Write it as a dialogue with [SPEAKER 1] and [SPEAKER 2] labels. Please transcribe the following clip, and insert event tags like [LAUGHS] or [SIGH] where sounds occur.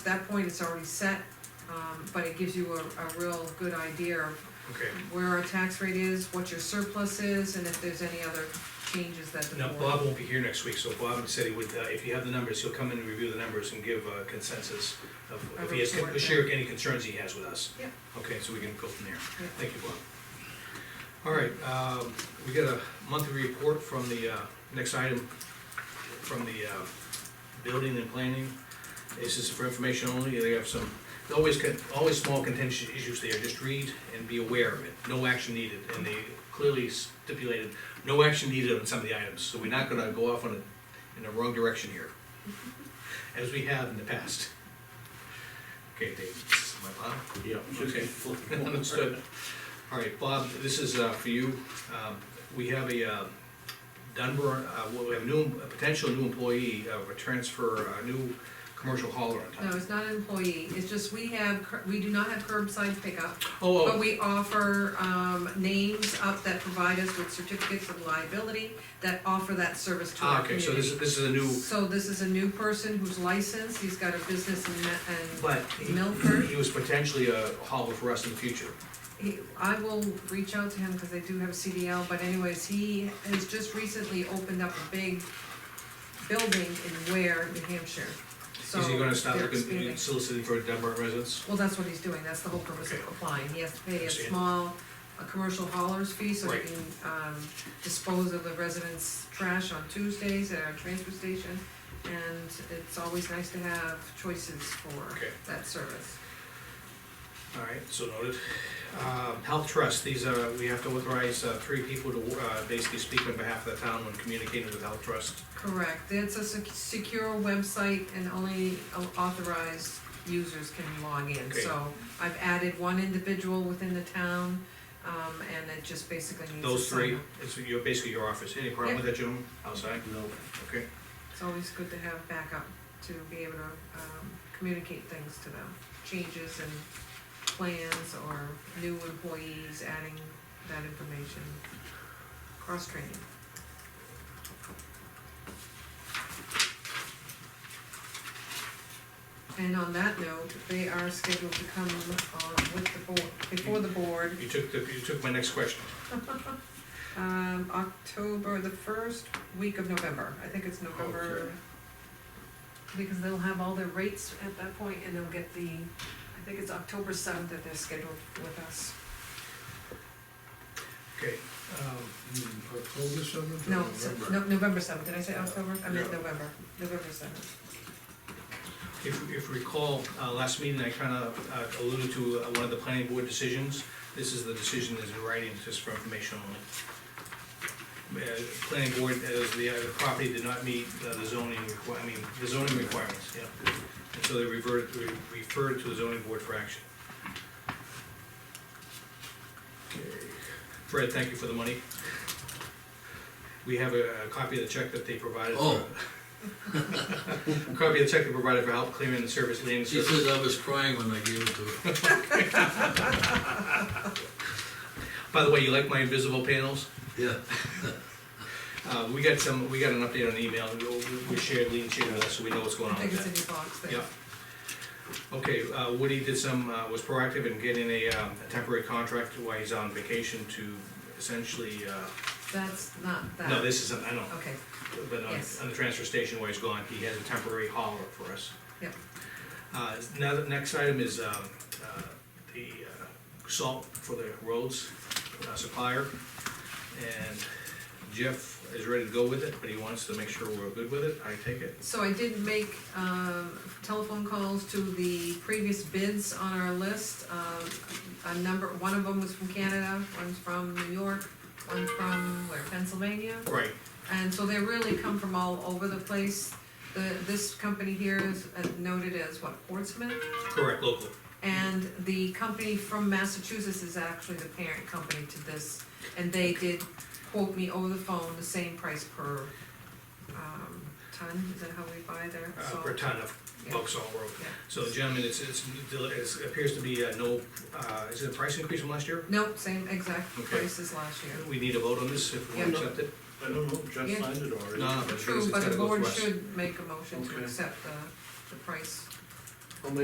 [SPEAKER 1] At that point, it's already set, um, but it gives you a, a real good idea of
[SPEAKER 2] Okay.
[SPEAKER 1] where our tax rate is, what your surplus is, and if there's any other changes that the
[SPEAKER 2] Now,
[SPEAKER 1] board.
[SPEAKER 2] Bob won't be here next week, so Bob said he would, uh, if you have the numbers, he'll come in and review the numbers and give uh, consensus of, if he has,
[SPEAKER 1] Of what,
[SPEAKER 2] share any concerns he has with us.
[SPEAKER 1] Yep.
[SPEAKER 2] Okay, so we can go from there.
[SPEAKER 1] Yep.
[SPEAKER 2] Thank you, Bob. All right, um, we got a monthly report from the, uh, next item, from the uh, building and planning. This is for information only, they have some, always, con- always small contentious issues there, just read and be aware of it, no action needed, and they clearly stipulated, no action needed on some of the items, so we're not gonna go off on a, in the wrong direction here, as we have in the past. Okay, Dave, this is my pile.
[SPEAKER 3] Yeah.
[SPEAKER 2] just keep [LAUGHS] Understood. All right, Bob, this is uh, for you. Um, We have a uh, Dunbar, uh, well, we have a new, a potential new employee, uh, a transfer, a new commercial hauler on
[SPEAKER 1] No,
[SPEAKER 2] top.
[SPEAKER 1] it's not an employee, it's just we have, cur- we do not have curbside pickup,
[SPEAKER 2] Oh,
[SPEAKER 1] but
[SPEAKER 2] oh,
[SPEAKER 1] we offer, um, names up that provide us with certificates of liability that offer that service to
[SPEAKER 2] ah,
[SPEAKER 1] our
[SPEAKER 2] okay, so
[SPEAKER 1] community.
[SPEAKER 2] this is, this is a new,
[SPEAKER 1] So this is a new person who's licensed, he's got a business in, Ma- and
[SPEAKER 2] but he-
[SPEAKER 1] Milford.
[SPEAKER 2] he was potentially a hauler for us in the future.
[SPEAKER 1] he, I will reach out to him, cause they do have a CDL, but anyways, he has just recently opened up a big building in Ware, New Hampshire.
[SPEAKER 2] Is he gonna stop
[SPEAKER 1] So, they're
[SPEAKER 2] looking,
[SPEAKER 1] expanding.
[SPEAKER 2] soliciting for Dunbar residents?
[SPEAKER 1] Well, that's what he's doing, that's the whole purpose of
[SPEAKER 2] Okay.
[SPEAKER 1] applying, he has to pay a
[SPEAKER 2] Understand.
[SPEAKER 1] small, a commercial hauler's fee, so he
[SPEAKER 2] Right.
[SPEAKER 1] can, um, dispose of the residents' trash on Tuesdays at our transfer station. And it's always nice to have choices for
[SPEAKER 2] Okay.
[SPEAKER 1] that service.
[SPEAKER 2] All right, so noted. Um, Health Trust, these are, we have to authorize uh, three people to uh, basically speak on behalf of the town when communicating with Health Trust.
[SPEAKER 1] Correct, it's a sec- secure website and only authorized users can log in,
[SPEAKER 2] Okay.
[SPEAKER 1] so I've added one individual within the town, um, and it just basically needs. to
[SPEAKER 2] Those
[SPEAKER 1] sign
[SPEAKER 2] three,
[SPEAKER 1] up.
[SPEAKER 2] it's your, basically your office, any problem with that, gentlemen, outside?
[SPEAKER 3] No.
[SPEAKER 2] Okay,
[SPEAKER 1] It's always good to have backup, to be able to, um, communicate things to them, changes and plans or new employees, adding that information, cross-training. And on that note, they are scheduled to come, uh, with the board, before the board,
[SPEAKER 2] you took, the- you took my next question.
[SPEAKER 1] um, October, the first week of November, I think it's November.
[SPEAKER 2] Okay.
[SPEAKER 1] Because they'll have all their rates at that point and they'll get the, I think it's October seventh that they're scheduled with us.
[SPEAKER 2] Okay, um,
[SPEAKER 3] Hmm, October seventh or
[SPEAKER 1] No, se-
[SPEAKER 3] November?
[SPEAKER 1] no, November seventh, did I say
[SPEAKER 3] Yeah.
[SPEAKER 1] October? I meant
[SPEAKER 3] Yeah.
[SPEAKER 1] November, November seventh.
[SPEAKER 2] if, if you recall, uh, last meeting, I kind of alluded to uh, one of the planning board decisions. This is the decision that's in writing, just for information only. Uh, Planning board, as the, uh, the property did not meet uh, the zoning requir, I mean, the zoning requirements, yeah. And so they reverted, re- referred to the zoning board for action. Okay. Fred, thank you for the money. We have a a copy of the check that they provided. for-
[SPEAKER 3] Oh.
[SPEAKER 2] Copy of the check they provided for help clearing the service landing.
[SPEAKER 3] She says I was crying when I gave it to her. [LAUGHS]
[SPEAKER 2] By the way, you like my invisible panels?
[SPEAKER 3] Yeah.
[SPEAKER 2] Uh, we got some, we got an update on email, We- we shared, Lean shared with us, so we know what's going
[SPEAKER 1] I
[SPEAKER 2] on
[SPEAKER 1] think it's in
[SPEAKER 2] with
[SPEAKER 1] your box
[SPEAKER 2] that.
[SPEAKER 1] there.
[SPEAKER 2] Oh, Yeah. Okay, uh, Woody did some, uh, was proactive in getting a, um, a temporary contract while he's on vacation to essentially, uh,
[SPEAKER 1] That's not that.
[SPEAKER 2] no, this isn't, I know,
[SPEAKER 1] Okay,
[SPEAKER 2] but on,
[SPEAKER 1] Yes.
[SPEAKER 2] on the transfer station where he's gone, he has a temporary hauler for us.
[SPEAKER 1] Yep.
[SPEAKER 2] Uh, now, the next item is, um, uh, the uh, salt for the roads uh, supplier. And Jeff is ready to go with it, but he wants to make sure we're good with it, I take it.
[SPEAKER 1] so I did make, um, telephone calls to the previous bids on our list. Um, a number, one of them was from Canada, one's from New York, one from, where, Pennsylvania?
[SPEAKER 2] Right,
[SPEAKER 1] And so they really come from all over the place. The, this company here is uh, noted as what, Portsmouth?
[SPEAKER 2] correct, local. uh,
[SPEAKER 1] And the company from Massachusetts is actually the parent company to this. And they did quote me over the phone the same price per, um, ton, is that how we buy their
[SPEAKER 2] uh,
[SPEAKER 1] salt?
[SPEAKER 2] per ton of
[SPEAKER 1] Yeah.
[SPEAKER 2] bulk salt road.
[SPEAKER 1] Yeah.
[SPEAKER 2] So gentlemen, it's, it's, it's- it appears to be uh, no, uh, is it a price increase from last year?
[SPEAKER 1] Nope, same exact
[SPEAKER 2] Okay.
[SPEAKER 1] price as last year.
[SPEAKER 2] We need a vote on this if we
[SPEAKER 1] Yeah.
[SPEAKER 2] accept it?
[SPEAKER 4] I don't know, Jeff
[SPEAKER 1] Yeah.
[SPEAKER 4] signed it already.
[SPEAKER 2] No, no, but it's
[SPEAKER 1] True, but
[SPEAKER 2] gotta
[SPEAKER 1] the
[SPEAKER 2] go
[SPEAKER 1] board
[SPEAKER 2] through us.
[SPEAKER 1] should make a motion to
[SPEAKER 4] Okay.
[SPEAKER 1] accept the, the price